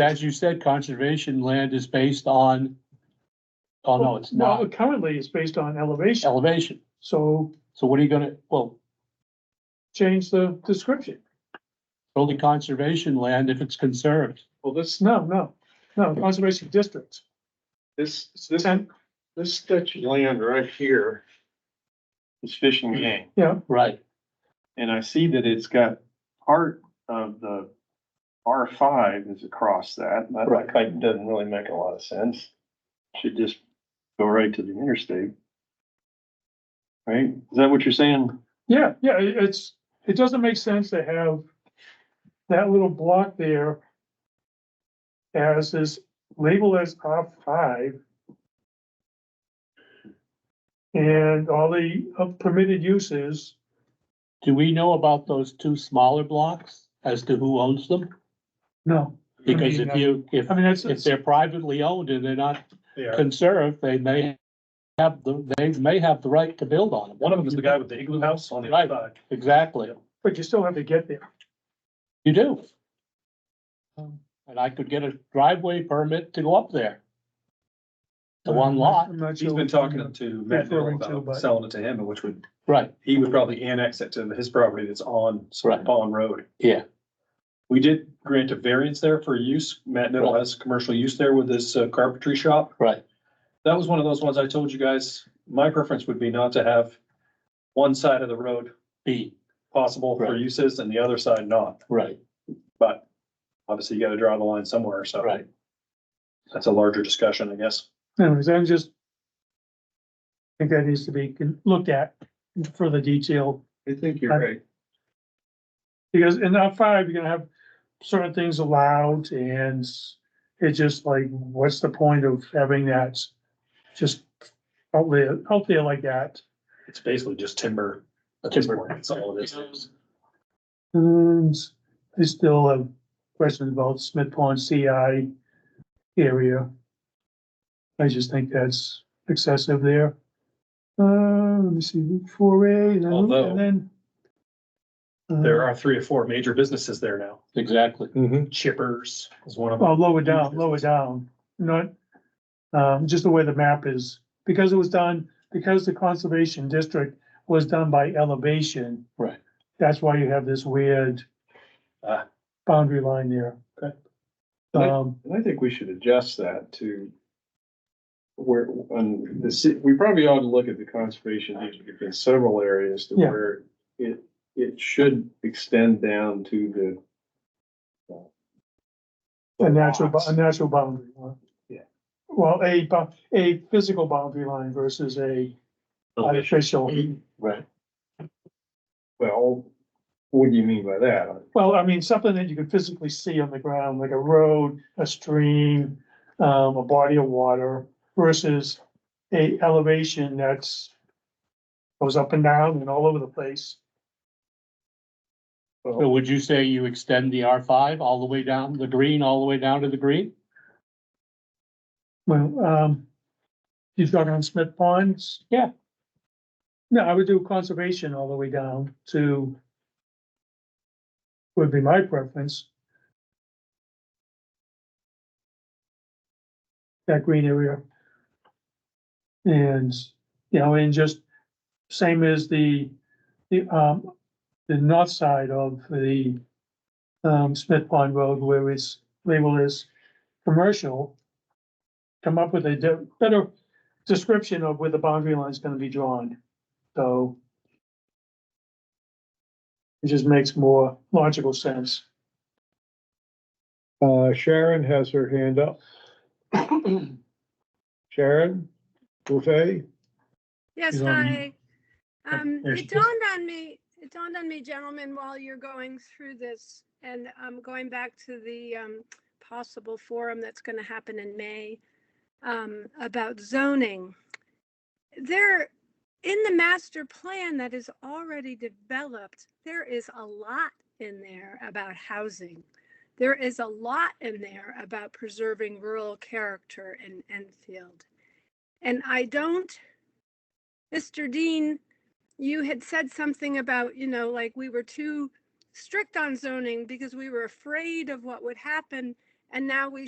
as you said, conservation land is based on, oh, no, it's Well, not Currently, it's based on elevation, elevation. so So what are you gonna, well, change the description. only conservation land if it's conserved. Well, this, No, no, no, conservation districts. this, this, this stretch of land right here is fishing Hmm. game, Yeah, Right. and I see that it's got part of the R five is across that. and That Right. like doesn't really make a lot of sense. Should just go right to the interstate. Right? Is that what you're saying? yeah, yeah, it- it's, it doesn't make sense to have that little block there as is labeled as R five. And all the uh, permitted uses, Do we know about those two smaller blocks as to who owns them? no. Because uh, if you, if, I mean, that's, if they're privately owned and they're not Yeah, conserved, they may have the, they may have the right to build on them. one of them is the guy with the igloo house on the other side. Exactly. but you still have to get there. You do. Um, And I could get a driveway permit to go up there. To one lot, I'm not He's sure been what- talking to Matt Dillon Referring to, but- about selling it to him, which would, right, he would probably annex it to his property that's on Right. Bond Road. yeah, We did grant a variance there for use. Matt Dillon has commercial use there with this uh, carpentry shop. right, That was one of those ones I told you guys, my preference would be not to have one side of the road B, possible for Right. uses and the other side not, right, but obviously you gotta draw the line somewhere, so. right. That's a larger discussion, I guess. Anyways, I'm just. I think that needs to be con- looked at in further detail, I think you're Right. right. because in R five, you're gonna have certain things allowed and. It's just like, what's the point of having that just out there, out there like that? It's basically just timber. at this point. That's all it is. And I still have questions about Smith Pond CI area. I just think that's excessive there. Uh, let me see, Route four A and then, Although- and then. uh, There are three or four major businesses there now. Exactly. Chippers is one of them. Well, lower down, lower down, not, um, just the way the map is, because it was done, because the conservation district was done by elevation. Right. That's why you have this weird Ah. boundary line there. Okay. Um, And I think we should adjust that to where, on the, ci- we probably ought to look at the conservation district in several areas to Yeah. where it, it should extend down to the uh, a natural, bo- lots. a natural boundary. line. Yeah. Well, a, bo- a physical boundary line versus a artificial, Right. Well, what do you mean by that? well, I mean, something that you can physically see on the ground, like a road, a stream, um, a body of water versus a elevation that's goes up and down and all over the place. So would you say you extend the R five all the way down, the green, all the way down to the green? Well, um, you talking on Smith Ponds? Yeah. No, I would do conservation all the way down to would be my preference. That green area. And, you know, and just same as the, the, um, the north side of the um, Smith Pond Road where it's labeled as commercial come up with a de- better description of where the boundary line is gonna be drawn, so. It just makes more logical sense. Uh, Sharon has her hand up. Sharon, Buffet, Yes, Is on- Oh, hi. Um, there she is. it dawned on me, it dawned on me, gentlemen, while you're going through this and um, going back to the um, possible forum that's going to happen in May um, about zoning. There, in the master plan that is already developed, there is a lot in there about housing. There is a lot in there about preserving rural character in Enfield. And I don't Mr. Dean, you had said something about, you know, like we were too strict on zoning because we were afraid of what would happen. And now we